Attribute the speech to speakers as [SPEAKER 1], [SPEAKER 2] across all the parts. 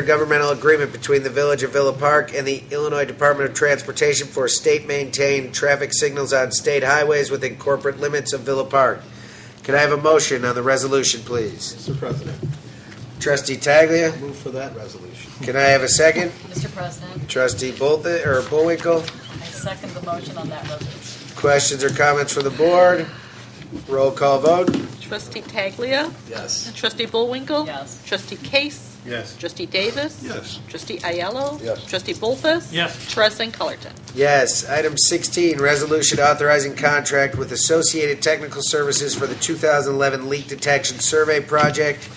[SPEAKER 1] intergovernmental agreement between the Village of Villa Park and the Illinois Department of Transportation for state-maintained traffic signals on state highways within corporate limits of Villa Park. Can I have a motion on the resolution, please?
[SPEAKER 2] Mr. President,
[SPEAKER 1] Trustee Taglia,
[SPEAKER 2] move for that resolution.
[SPEAKER 1] can I have a second?
[SPEAKER 3] Mr. President,
[SPEAKER 1] Trustee Bolte, or Bullwinkle?
[SPEAKER 3] I second the motion on that resolution.
[SPEAKER 1] Questions or comments from the board? Roll call vote.
[SPEAKER 4] Trustee Taglia.
[SPEAKER 2] Yes.
[SPEAKER 4] Trustee Bullwinkle.
[SPEAKER 3] Yes.
[SPEAKER 4] Trustee Case.
[SPEAKER 2] Yes.
[SPEAKER 4] Trustee Davis.
[SPEAKER 2] Yes.
[SPEAKER 4] Trustee Ayello.
[SPEAKER 2] Yes.
[SPEAKER 4] Trustee Bolfus.
[SPEAKER 5] Yes.
[SPEAKER 4] President Colleton.
[SPEAKER 1] Yes. Item 16, resolution authorizing contract with Associated Technical Services for the 2011 Leak Detection Survey Project.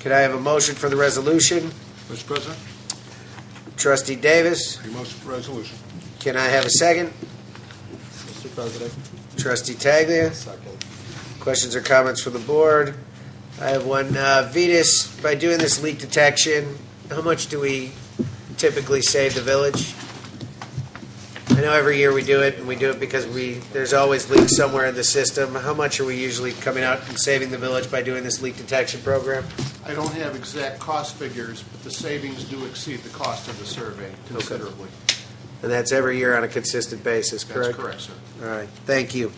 [SPEAKER 1] Could I have a motion for the resolution?
[SPEAKER 6] Mr. President,
[SPEAKER 1] Trustee Davis,
[SPEAKER 6] a motion for resolution.
[SPEAKER 1] can I have a second?
[SPEAKER 2] Mr. President,
[SPEAKER 1] Trustee Taglia,
[SPEAKER 2] second.
[SPEAKER 1] questions or comments from the board? I have one. Uh, Vetus, by doing this leak detection, how much do we typically save the village? I know every year we do it, and we do it because we, there's always leaks somewhere in the system. How much are we usually coming out and saving the village by doing this leak detection program?
[SPEAKER 7] I don't have exact cost figures, but the savings do exceed the cost of the survey considerably.
[SPEAKER 1] And that's every year on a consistent basis, correct?
[SPEAKER 7] That's correct, sir.
[SPEAKER 1] All right, thank you.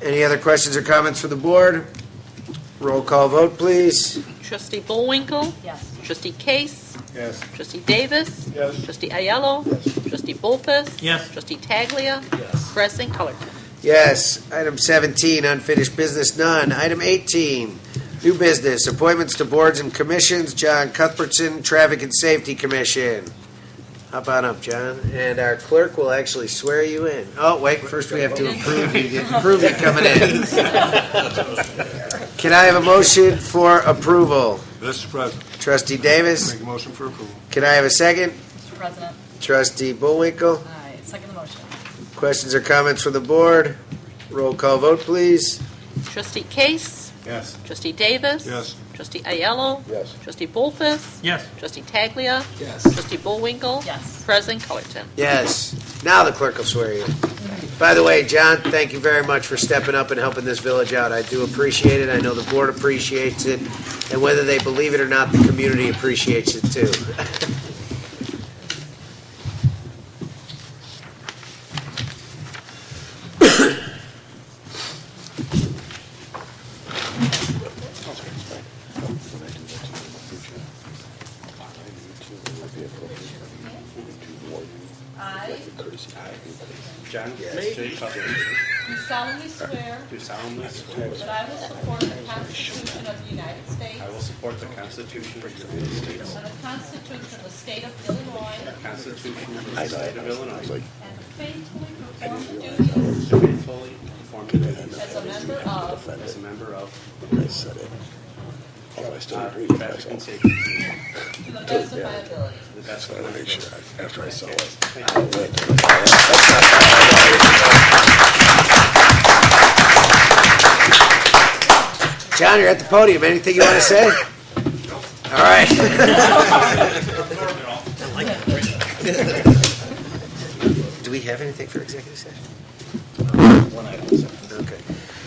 [SPEAKER 1] Any other questions or comments for the board? Roll call vote, please.
[SPEAKER 4] Trustee Bullwinkle.
[SPEAKER 3] Yes.
[SPEAKER 4] Trustee Case.
[SPEAKER 6] Yes.
[SPEAKER 4] Trustee Davis.
[SPEAKER 6] Yes.
[SPEAKER 4] Trustee Ayello. Trustee Bolfus.
[SPEAKER 5] Yes.
[SPEAKER 4] Trustee Taglia.
[SPEAKER 2] Yes.
[SPEAKER 4] President Colleton.
[SPEAKER 1] Yes. Item 17, unfinished business, none. Item 18, new business, appointments to boards and commissions. John Cuthbertson, Traffic and Safety Commission. Hop on up, John, and our clerk will actually swear you in. Oh, wait, first we have to approve you, approve you coming in. Can I have a motion for approval?
[SPEAKER 6] Mr. President,
[SPEAKER 1] Trustee Davis?
[SPEAKER 6] make a motion for approval.
[SPEAKER 1] Can I have a second?
[SPEAKER 3] Mr. President,
[SPEAKER 1] Trustee Bullwinkle,
[SPEAKER 3] I second the motion.
[SPEAKER 1] questions or comments from the board? Roll call vote, please.
[SPEAKER 4] Trustee Case.
[SPEAKER 6] Yes.
[SPEAKER 4] Trustee Davis.
[SPEAKER 6] Yes.
[SPEAKER 4] Trustee Ayello.
[SPEAKER 6] Yes.
[SPEAKER 4] Trustee Bolfus.
[SPEAKER 5] Yes.
[SPEAKER 4] Trustee Taglia.
[SPEAKER 2] Yes.
[SPEAKER 4] Trustee Bullwinkle.
[SPEAKER 3] Yes.
[SPEAKER 4] President Colleton.
[SPEAKER 1] Yes. Now the clerk will swear you. By the way, John, thank you very much for stepping up and helping this village out. I do appreciate it. I know the board appreciates it. And whether they believe it or not, the community appreciates it too.
[SPEAKER 8] I
[SPEAKER 6] John
[SPEAKER 8] J.
[SPEAKER 6] Cuthbert,
[SPEAKER 8] do solemnly swear
[SPEAKER 6] do solemnly swear
[SPEAKER 8] that I will support the Constitution of the United States
[SPEAKER 6] I will support the Constitution of the United States,
[SPEAKER 8] and the Constitution of the State of Illinois,
[SPEAKER 6] the Constitution of the State of Illinois,
[SPEAKER 8] and faithfully perform the duties
[SPEAKER 6] faithfully perform the duties
[SPEAKER 8] as a member of
[SPEAKER 6] as a member of
[SPEAKER 9] Oh, I still
[SPEAKER 2] Ah,
[SPEAKER 6] uh,
[SPEAKER 9] agree.
[SPEAKER 6] Traffic and Safety Commission
[SPEAKER 8] to the best of my ability.
[SPEAKER 6] to the best of my
[SPEAKER 9] Make
[SPEAKER 6] ability.
[SPEAKER 9] sure I- After I saw it.
[SPEAKER 1] John, you're at the podium. Anything you want to say? All right. Do we have anything for executive session? Okay.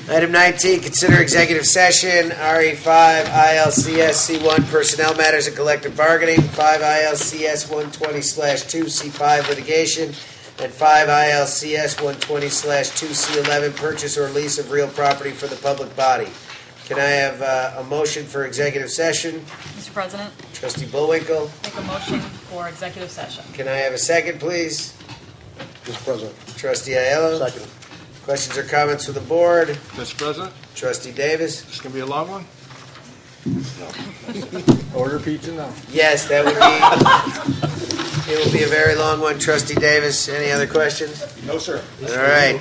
[SPEAKER 1] Item 19, consider executive session, E RE5 ILCS C1 Personnel Matters and Collective Bargaining, 5 ILCS 120/2 C5 Litigation, and 5 ILCS 120/2 C11 Purchase or Lease of Real Property for the Public Body. Can I have uh, a motion for executive session?
[SPEAKER 3] Mr. President,
[SPEAKER 1] Trustee Bullwinkle,
[SPEAKER 3] make a motion for executive session.
[SPEAKER 1] can I have a second, please?
[SPEAKER 2] Mr. President,
[SPEAKER 1] Trustee Ayello?
[SPEAKER 2] second.
[SPEAKER 1] Questions or comments from the board?
[SPEAKER 6] Mr. President,
[SPEAKER 1] Trustee Davis?
[SPEAKER 6] this is going to be a long one?
[SPEAKER 2] Order pizza now.
[SPEAKER 1] Yes, that would be, it will be a very long one. Trustee Davis, any other questions?
[SPEAKER 2] No, sir.
[SPEAKER 1] All right.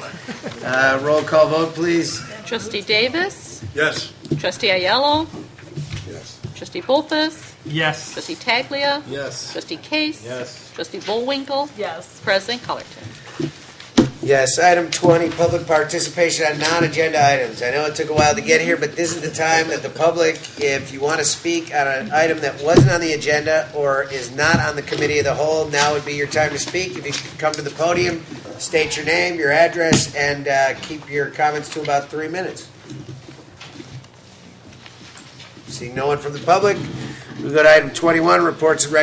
[SPEAKER 1] Uh, Roll call vote, please.
[SPEAKER 4] Trustee Davis.
[SPEAKER 6] Yes.
[SPEAKER 4] Trustee Ayello.
[SPEAKER 2] Yes.
[SPEAKER 4] Trustee Bolfus.
[SPEAKER 5] Yes.
[SPEAKER 4] Trustee Taglia.
[SPEAKER 2] Yes.
[SPEAKER 4] Trustee Case.
[SPEAKER 2] Yes.
[SPEAKER 4] Trustee Bullwinkle.
[SPEAKER 3] Yes.
[SPEAKER 4] President Colleton.
[SPEAKER 1] Yes, item 20, public participation on non-agenda items. I know it took a while to get here, but this is the time that the public, if you want to speak on an item that wasn't on the agenda or is not on the committee of the whole, now would be your time to speak. If you could come to the podium, state your name, your address, and uh, keep your comments to about three minutes. Seeing no one from the public, We go to item twenty-one, reports and recommendations